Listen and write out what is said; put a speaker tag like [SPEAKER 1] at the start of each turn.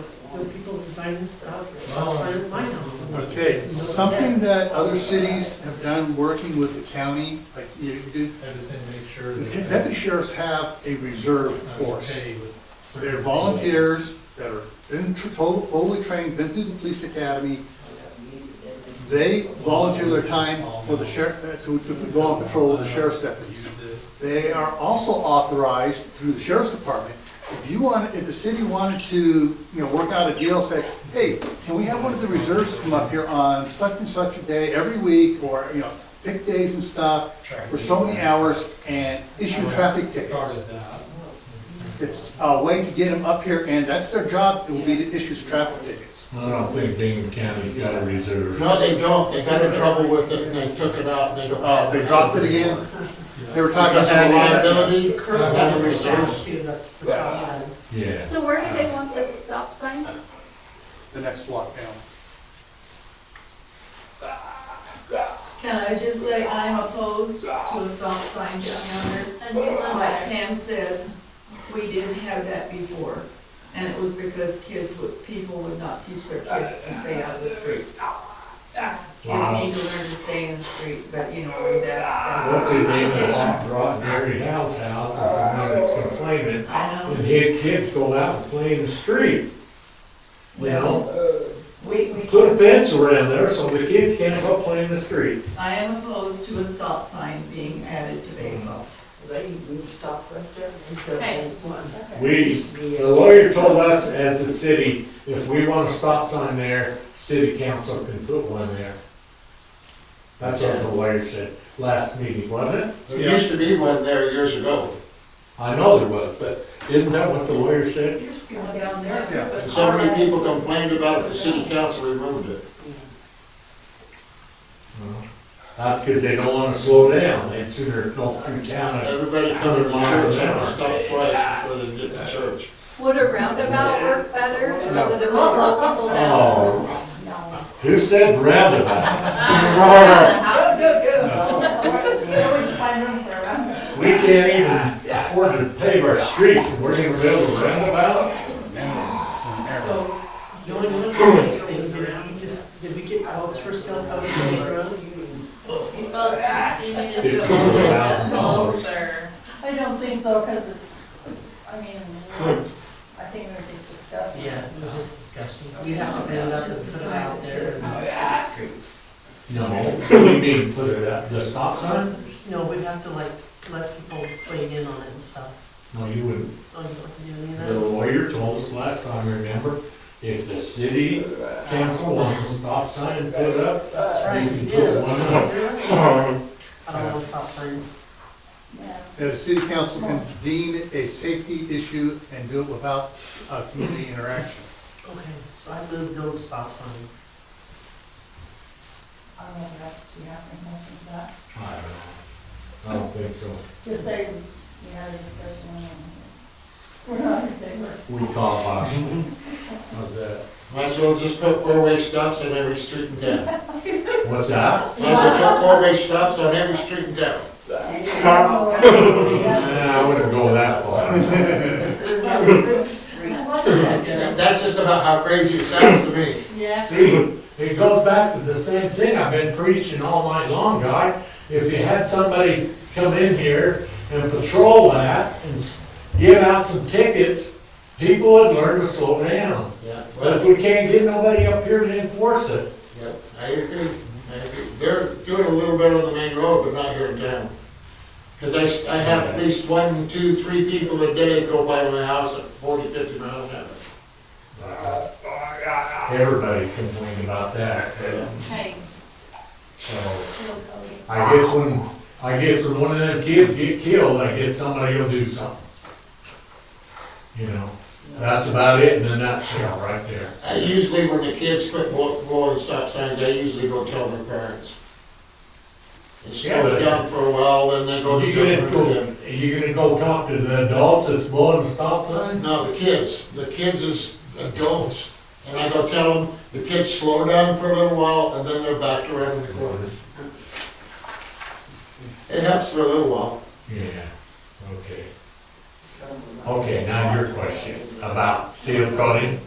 [SPEAKER 1] the people who buy this stuff
[SPEAKER 2] Oh.
[SPEAKER 1] outside of my house.
[SPEAKER 3] Okay, something that other cities have done working with the county, like you do,
[SPEAKER 2] I just didn't make sure
[SPEAKER 3] the
[SPEAKER 2] that.
[SPEAKER 3] deputy sheriffs have a reserve
[SPEAKER 2] I was
[SPEAKER 3] force.
[SPEAKER 2] okay with certain
[SPEAKER 3] They're
[SPEAKER 2] things.
[SPEAKER 3] volunteers that are in, tr- total- fully trained, been through the police academy. They volunteer their time for the sheriff, uh, to, to go on patrol with the sheriff's deputies.
[SPEAKER 2] Use it.
[SPEAKER 3] They are also authorized through the sheriff's department. If you want, if the city wanted to, you know, work out a deal, say, hey, can we have one of the reserves come up here on such and such a day every week, or, you know, pick days and stuff for so many hours and issue
[SPEAKER 2] I
[SPEAKER 3] traffic tickets.
[SPEAKER 2] Started that.
[SPEAKER 3] It's a way to get them up here, and that's their job, it will be to issue traffic tickets.
[SPEAKER 4] I don't think Bingham County's got a reserve.
[SPEAKER 5] No, they don't, they got in trouble with it, and they took it out, and they don't.
[SPEAKER 3] Uh, they dropped it again, they were talking
[SPEAKER 5] Because
[SPEAKER 3] about that.
[SPEAKER 5] of the liability,
[SPEAKER 2] Yeah.
[SPEAKER 5] that was
[SPEAKER 1] See, that's the
[SPEAKER 3] Yeah.
[SPEAKER 1] problem.
[SPEAKER 4] Yeah.
[SPEAKER 6] So where do they want this stop sign?
[SPEAKER 3] the next block down.
[SPEAKER 7] Can I just say I'm opposed to a stop sign down there?
[SPEAKER 6] And we love
[SPEAKER 7] Like
[SPEAKER 6] that.
[SPEAKER 7] Pam said, we did have that before, and it was because kids would, people would not teach their kids to stay out of the street. Kids
[SPEAKER 4] Wow.
[SPEAKER 7] need to learn to stay in the street, but you know, that's,
[SPEAKER 4] What's
[SPEAKER 7] that's.
[SPEAKER 4] his name that brought Barry Howell's house, is the one that's complaining,
[SPEAKER 7] I know,
[SPEAKER 4] and he had kids go out and play in the street. You know,
[SPEAKER 7] we, we
[SPEAKER 4] put a
[SPEAKER 7] can't,
[SPEAKER 4] fence around there so the kids can't go play in the street.
[SPEAKER 7] I am opposed to a stop sign being added to Basalt.
[SPEAKER 1] They, we stop right there.
[SPEAKER 6] Okay.
[SPEAKER 4] We, the lawyer told us as a city, if we want a stop sign there, city council can put one there. That's what the lawyer said last meeting, wasn't it?
[SPEAKER 5] There used to be one there years ago,
[SPEAKER 4] I know there was, but isn't that what the lawyer said?
[SPEAKER 1] Down there.
[SPEAKER 3] Yeah.
[SPEAKER 5] and so many people complained about it, the city council removed it.
[SPEAKER 4] Uh, because they don't wanna slow down, they'd sooner go through town and
[SPEAKER 5] Everybody coming to church had to stop twice before they get to church.
[SPEAKER 6] Would a roundabout work better so that it would slow people down?
[SPEAKER 4] Oh, who said roundabout?
[SPEAKER 1] Oh,
[SPEAKER 4] We can't even afford to pave our streets, and we're gonna build a roundabout?
[SPEAKER 1] So, the only one place they can, just, did we get votes for stuff out of the playground?
[SPEAKER 6] Well, do you need to do
[SPEAKER 4] Fifteen
[SPEAKER 6] it all with
[SPEAKER 4] thousand
[SPEAKER 6] the poles
[SPEAKER 4] dollars.
[SPEAKER 6] or?
[SPEAKER 8] I don't think so, because it's, I mean, I think we're just discussing.
[SPEAKER 1] Yeah, it was just discussion. We have to end up and put it out there.
[SPEAKER 4] No, we need to put it up, the stop sign?
[SPEAKER 1] No, we'd have to like, let people weigh in on it and stuff.
[SPEAKER 4] No, you wouldn't.
[SPEAKER 1] Oh, you don't have to do any of that?
[SPEAKER 4] The lawyer told us last time, remember? If the city council wants a stop sign put up,
[SPEAKER 1] That's right,
[SPEAKER 4] you can put
[SPEAKER 1] yeah.
[SPEAKER 4] one up.
[SPEAKER 1] I don't want to stop sign.
[SPEAKER 8] Yeah.
[SPEAKER 3] that a city council can deem it a safety issue and do it without, uh, community interaction.
[SPEAKER 1] Okay, so I moved no stop sign.
[SPEAKER 8] I don't know, if we have any motion for that?
[SPEAKER 4] I don't know. I don't think so.
[SPEAKER 8] Just say, we had a discussion. and We're not in favor.
[SPEAKER 4] We call caution. How's that?
[SPEAKER 5] Might as well just put four-way stops on every street in town. Might
[SPEAKER 4] What's that?
[SPEAKER 5] as well put four-way stops on every street in town.
[SPEAKER 4] Nah, I wouldn't go that far.
[SPEAKER 5] That- That's just about how crazy it sounds to me.
[SPEAKER 6] Yeah.
[SPEAKER 4] See, it goes back to the same thing I've been preaching all night long, guy. If you had somebody come in here and patrol that and s- give out some tickets, people would learn to slow down.
[SPEAKER 5] Yeah.
[SPEAKER 4] But we can't get nobody up here to enforce it.
[SPEAKER 5] Yep, I agree, I agree. They're doing a little bit on the main road, but not here in town. Cause I, s- I have at least one, two, three people a day go by my house at forty, fifty miles an hour.
[SPEAKER 4] Everybody's complaining about that,
[SPEAKER 6] Hey,
[SPEAKER 4] so.
[SPEAKER 8] Oh,
[SPEAKER 6] little Cody.
[SPEAKER 4] I guess when, I guess when one of them kids get killed, I guess somebody will do something. You know, that's about it in a nutshell, right there.
[SPEAKER 5] I usually, when the kids quit blo- blowing stop signs, I usually go tell their parents. It
[SPEAKER 4] Yeah, but-
[SPEAKER 5] slows down for a while, then they go to
[SPEAKER 4] You gonna
[SPEAKER 5] jump
[SPEAKER 4] go,
[SPEAKER 5] again.
[SPEAKER 4] you gonna go talk to the adults that's blowing the stop signs?
[SPEAKER 5] No, the kids, the kids is adults, and I go tell them, the kids slow down for a little while, and then they're back around the corner. It helps for a little while.
[SPEAKER 4] Yeah, okay. Okay, now your question about seal coating.